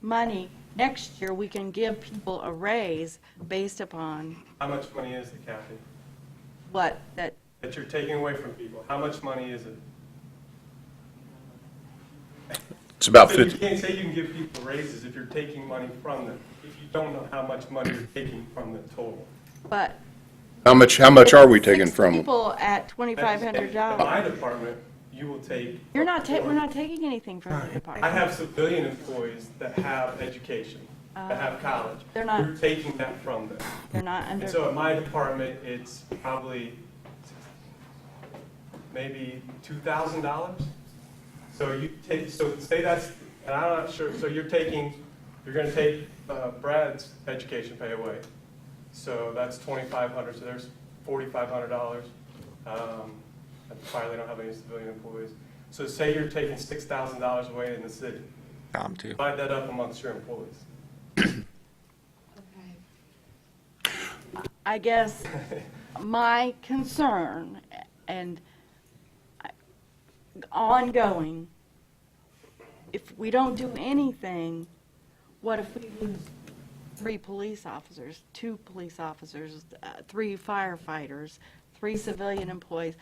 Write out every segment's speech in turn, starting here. money, next year, we can give people a raise based upon How much money is it, Kathy, what, that, that you're taking away from people? How much money is it? It's about So you 50, can't say you can give people raises if you're taking money from them, if you don't know how much money you're taking from the total. but. how much, how much are we taking Six from them? People at twenty-five hundred In my dollars. department, you will take. You're not ta, we're not taking anything from the department. I have civilian employees that have education, that have college. They're Uh, not- You're taking that from them. They're not And so under, in my department, it's probably maybe two thousand dollars. So you take, so say that's, and I'm not sure, so you're taking, you're gonna take uh, Brad's education pay away. So that's twenty-five hundred, so there's forty-five hundred dollars. Probably don't have any civilian employees. So say you're taking six thousand dollars away in the city. Tom, too. Divide that up amongst your employees. I guess, my concern and I- ongoing, if we don't do anything, what if we lose three police officers, two police officers, uh, three firefighters, three civilian employees?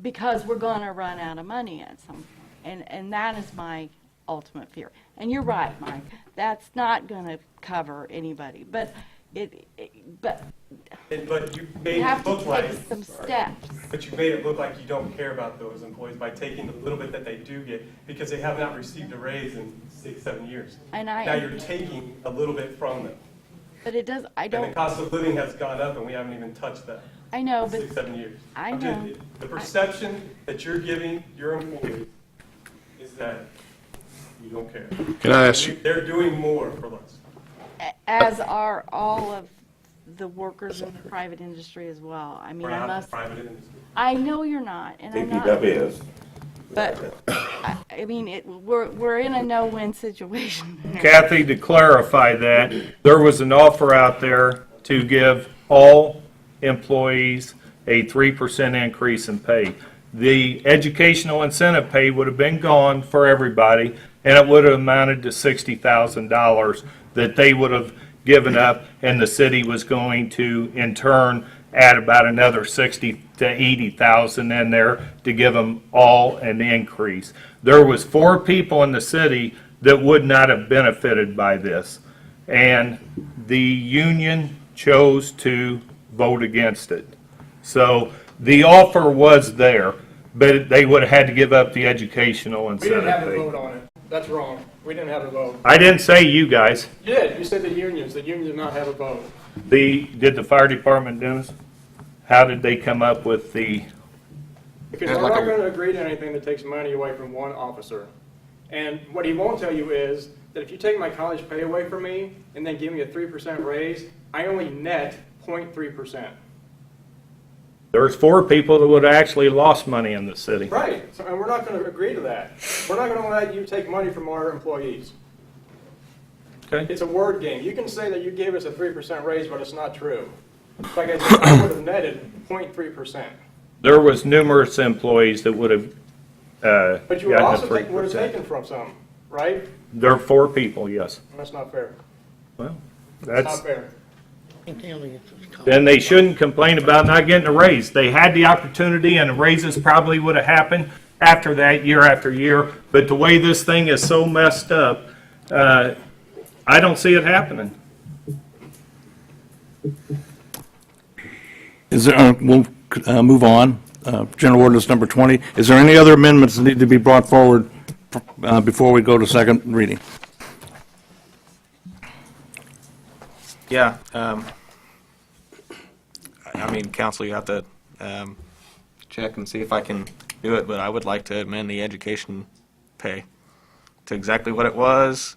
Because we're going to run out of money at some point. And, and that is my ultimate fear. And you're right, Mike, that's not going to cover anybody. But it, it- but And- But you we made have it to look like. take some steps. But you made it look like you don't care about those employees by taking the little bit that they do get, because they have not received a raise in six, seven years. And Now you're I, taking a little bit from them. but it does, I And the don't, cost of living has gone up, and we haven't even touched that I know, in but six, seven years. I I'm just- know. The perception that you're giving your employees is that you don't care. Can I ask you, They're doing more for less. a- as are all of the workers in the private industry as well. I mean, We're I not the must, private industry. I know you're not, and I'm not. DPW is. But, I, I mean, it, we're, we're in a no-win situation. Kathy, to clarify that, there was an offer out there to give all employees a 3% increase in pay. The educational incentive pay would have been gone for everybody, and it would have amounted to $60,000 that they would have given up, and the city was going to, in turn, add about another 60 to 80,000 in there to give them all an increase. There was four people in the city that would not have benefited by this, and the union chose to vote against it. So the offer was there, but they would have had to give up the educational We didn't have incentive. a vote fee. on it. That's wrong. We didn't have a vote. I didn't say you guys. You did. You said the unions. The unions did not have a vote. The, did the fire department, Dennis? How did they come up with the, Because Yeah, we're like not a- going to agree to anything that takes money away from one officer. And what he won't tell you is that if you take my college pay away from me and then give me a 3% raise, I only net 0.3%. there's four people that would have actually lost money in the city. Right. So, and we're not going to agree to that. We're not going to let you take money from our employees. Okay. It's a word game. You can say that you gave us a 3% raise, but it's not true. Like I said, I would have netted 0.3%. There was numerous employees that would have, uh, But you would gotten also a three take, would have percent. taken from some, right? There are four people, yes. That's not fair. Well, That's not that's, fair. then they shouldn't complain about not getting a raise. They had the opportunity and the raises probably would have happened after that, year after year. But the way this thing is so messed up, uh, I don't see it happening. Is there, uh, we'll uh, move on, Uh, General Ordinance Number 20. Is there any other amendments that need to be brought forward uh, before we go to second reading? Yeah. um, I I mean, council, you have to um, check and see if I can do it, but I would like to amend the education pay to exactly what it was,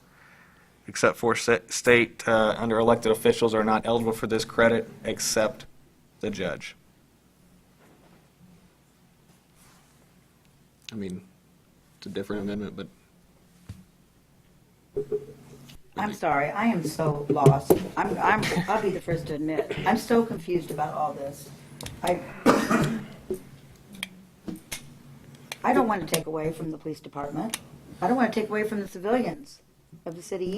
except for sa- state, uh, under elected officials are not eligible for this credit except the judge. I mean, it's a different amendment, but I'm sorry, I am so lost. I'm, I'm, I'll be the first to admit, I'm so confused about all this. I, I don't want to take away from the police department. I don't want to take away from the civilians of the city